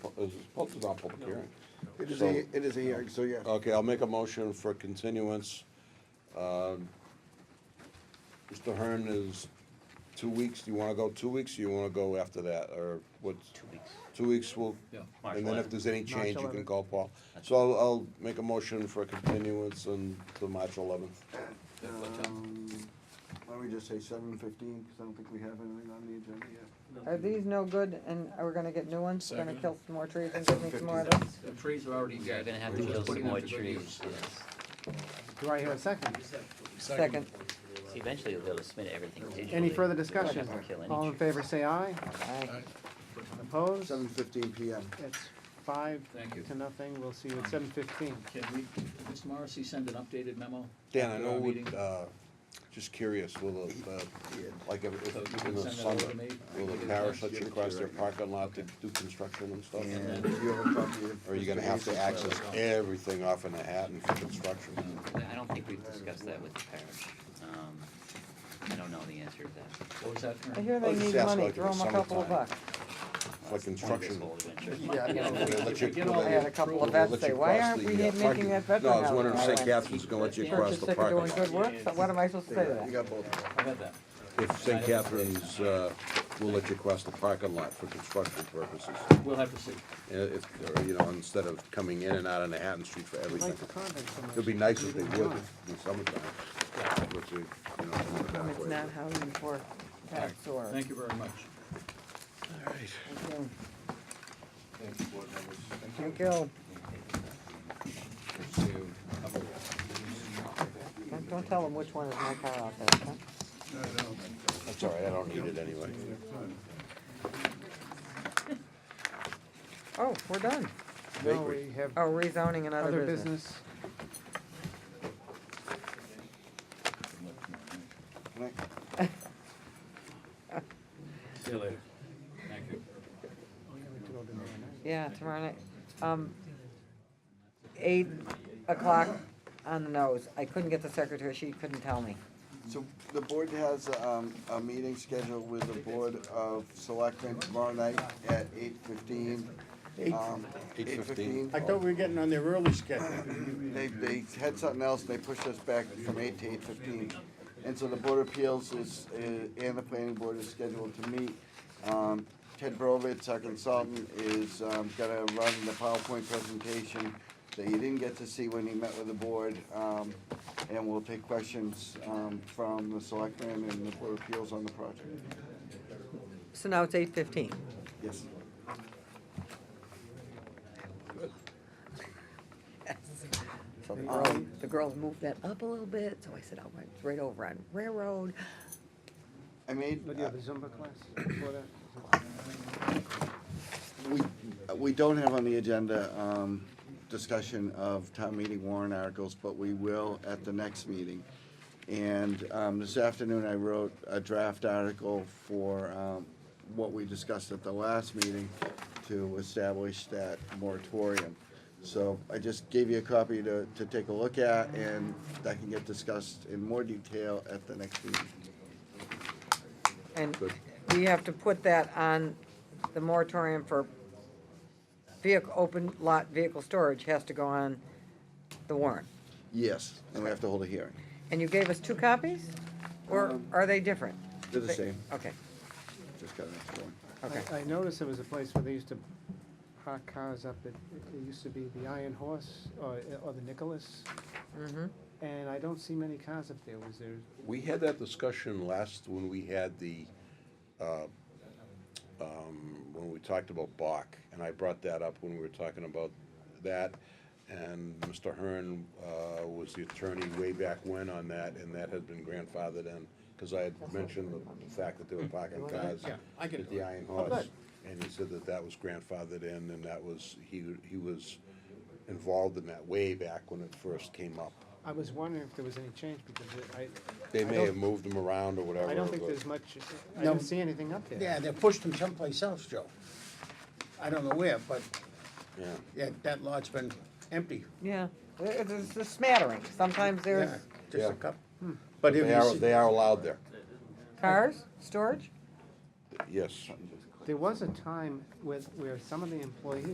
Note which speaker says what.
Speaker 1: Is this posted on public hearing?
Speaker 2: It is a, it is a hearing, so yeah.
Speaker 1: Okay, I'll make a motion for continuance. Um, Mr. Hearn is two weeks, do you wanna go two weeks, or you wanna go after that, or what's? Two weeks. Two weeks, we'll,
Speaker 3: Yeah. March
Speaker 1: and then if
Speaker 3: 11.
Speaker 1: there's any
Speaker 2: March
Speaker 1: change, you can
Speaker 2: 11.
Speaker 1: call Paul. So I'll, I'll make a motion for continuance until March eleventh.
Speaker 2: Um, Why don't we just say seven fifteen, because I don't think we have anything on the agenda yet.
Speaker 4: Are these no good and are we gonna get new ones? We're gonna kill some more trees and give me some more of
Speaker 2: Second.
Speaker 4: those?
Speaker 3: The trees are already
Speaker 5: You're
Speaker 3: dead.
Speaker 5: gonna have
Speaker 3: We're
Speaker 5: to
Speaker 3: just
Speaker 5: kill
Speaker 3: putting them
Speaker 5: some more
Speaker 3: to good
Speaker 5: trees.
Speaker 3: use.
Speaker 6: Do I hear a second?
Speaker 4: Second.
Speaker 5: See, Eventually, we'll be able to submit everything digitally.
Speaker 6: Any further
Speaker 5: We won't have
Speaker 6: discussion?
Speaker 5: to kill any
Speaker 6: All in
Speaker 5: trees.
Speaker 6: favor, say aye.
Speaker 4: Aye.
Speaker 6: Opposed?
Speaker 2: Seven fifteen PM.
Speaker 6: It's five
Speaker 3: Thank you.
Speaker 6: to nothing. We'll see you at seven fifteen.
Speaker 3: Can we, did Mr. Morrissey send an updated memo?
Speaker 1: Dan, I
Speaker 3: after
Speaker 1: know,
Speaker 3: our
Speaker 1: what,
Speaker 3: meeting?
Speaker 1: uh, just curious, will, the, uh, like, if,
Speaker 3: So you
Speaker 1: if in
Speaker 3: can
Speaker 1: the
Speaker 3: send that over
Speaker 1: summer,
Speaker 3: to me?
Speaker 1: will the parish let you cross their parking lot to do construction and stuff?
Speaker 2: And if you have a copy of.
Speaker 1: Or are you gonna have to access everything off in Manhattan for construction?
Speaker 5: I don't think we've discussed that with the parish. Um, I don't know the answer to that.
Speaker 3: What was that? Aaron?
Speaker 4: I hear
Speaker 1: I'll
Speaker 4: they
Speaker 1: just
Speaker 4: need
Speaker 1: ask
Speaker 4: money,
Speaker 1: like in the
Speaker 4: throw them a couple of
Speaker 1: summertime.
Speaker 4: bucks.
Speaker 1: For
Speaker 5: It's one of those
Speaker 1: construction.
Speaker 5: old adventures.
Speaker 2: Yeah, I know.
Speaker 1: Will they let you-
Speaker 3: Get
Speaker 1: will
Speaker 3: all
Speaker 1: they-
Speaker 4: I had a couple of
Speaker 1: will they
Speaker 4: vets
Speaker 1: let
Speaker 4: say,
Speaker 1: you
Speaker 4: why
Speaker 1: cross
Speaker 4: aren't
Speaker 1: the,
Speaker 4: we
Speaker 1: uh,
Speaker 4: making
Speaker 1: parking-
Speaker 4: that Bedford
Speaker 1: No, I was
Speaker 4: house
Speaker 1: wondering if
Speaker 4: that
Speaker 1: St.
Speaker 4: way?
Speaker 1: Catherine's gonna let you cross
Speaker 4: Church is
Speaker 1: the
Speaker 4: sick of
Speaker 1: parking
Speaker 4: doing good
Speaker 1: lot.
Speaker 4: work, so what am I supposed to say to
Speaker 2: You
Speaker 4: that?
Speaker 2: got both. of them.
Speaker 3: I had that.
Speaker 1: If St. Catherine's, uh, will let you cross the parking lot for construction purposes.
Speaker 3: We'll have to see.
Speaker 1: Uh, If, or, you know, instead of coming in and out on Manhattan Street for
Speaker 6: I
Speaker 1: everything.
Speaker 6: like the convent so much.
Speaker 1: It'd be nice if they would in summertime. which is, you know, in the back
Speaker 4: It's
Speaker 1: way.
Speaker 4: not how you work, that's or.
Speaker 3: Thank you very much.
Speaker 4: Thank you. Thank you. Don't- Don't tell them which one is my car out there, huh?
Speaker 1: That's all right, I don't need it anyway.
Speaker 4: Oh, we're done.
Speaker 6: No, we have
Speaker 4: Oh, rezoning and
Speaker 6: other
Speaker 4: other business.
Speaker 6: business.
Speaker 3: See you later. Thank you.
Speaker 4: Yeah, tomorrow night, um, eight o'clock on the nose. I couldn't get the secretary, she couldn't tell me.
Speaker 2: So the board has, um, a meeting scheduled with the Board of Selectmen tomorrow night at eight fifteen. Um, Eight
Speaker 1: 8:15.
Speaker 2: fifteen.
Speaker 7: I thought we were getting on their early schedule.
Speaker 2: They, they had something else, they pushed us back from eight to eight fifteen. And so the Board of Appeals is, uh, and the planning board is scheduled to meet. Um, Ted Brovitz, our consultant, is, um, gonna run the PowerPoint presentation that you didn't get to see when he met with the board. Um, and we'll take questions, um, from the selectmen and the Board of Appeals on the project.
Speaker 4: So now it's eight fifteen.
Speaker 2: Yes.
Speaker 4: So the girls, the girls moved that up a little bit, so I said, I'll went right over on Railroad.
Speaker 2: I made,
Speaker 6: What, do you have a Zumba class before that?
Speaker 2: We, we don't have on the agenda, um, discussion of town meeting warrant articles, but we will at the next meeting. And, um, this afternoon I wrote a draft article for, um, what we discussed at the last meeting to establish that moratorium. So I just gave you a copy to, to take a look at and that can get discussed in more detail at the next meeting.
Speaker 4: And we have to put that on the moratorium for vehicle, open lot vehicle storage has to go on the warrant.
Speaker 2: Yes, and we have to hold a hearing.
Speaker 4: And you gave us two copies? Or are they different?
Speaker 2: Um, They're the same,
Speaker 4: Okay,
Speaker 2: just got an extra one.
Speaker 4: okay.
Speaker 6: I I noticed there was a place where they used to park cars up, at it used to be the Iron Horse or, or the Nicholas,
Speaker 4: Mm-hmm.
Speaker 6: and I don't see many cars up there. Was there,
Speaker 1: We had that discussion last, when we had the, uh, um, when we talked about Bach, and I brought that up when we were talking about that. And Mr. Hearn uh, was the attorney way back when on that, and that had been grandfathered in, because I had mentioned the fact that they
Speaker 6: Mm-hmm.
Speaker 1: were parking cars
Speaker 7: Yeah, I can
Speaker 1: at
Speaker 7: do
Speaker 1: the
Speaker 6: Oh,
Speaker 7: it.
Speaker 1: Iron Horse. And he said that that was grandfathered in, and that was, he, he was involved in that way back when it first came up.
Speaker 6: I was wondering if there was any change because it- I.
Speaker 1: They
Speaker 6: I
Speaker 1: may
Speaker 6: don't-
Speaker 1: have moved them around or whatever.
Speaker 6: I don't think
Speaker 1: but-
Speaker 6: there's much, I
Speaker 7: No.
Speaker 6: don't see anything up there.
Speaker 7: Yeah, they pushed them someplace else, Joe. I don't know where, but,
Speaker 1: Yeah.
Speaker 7: yeah, that lot's been empty.
Speaker 4: Yeah, It- it's a smattering. Sometimes there's
Speaker 7: Yeah, Just
Speaker 1: Yeah.
Speaker 7: a cup. But if
Speaker 1: They
Speaker 7: you
Speaker 1: are,
Speaker 7: see-
Speaker 1: they are allowed there,
Speaker 4: cars, storage.
Speaker 1: yes.
Speaker 6: There was a time with, where some of the employees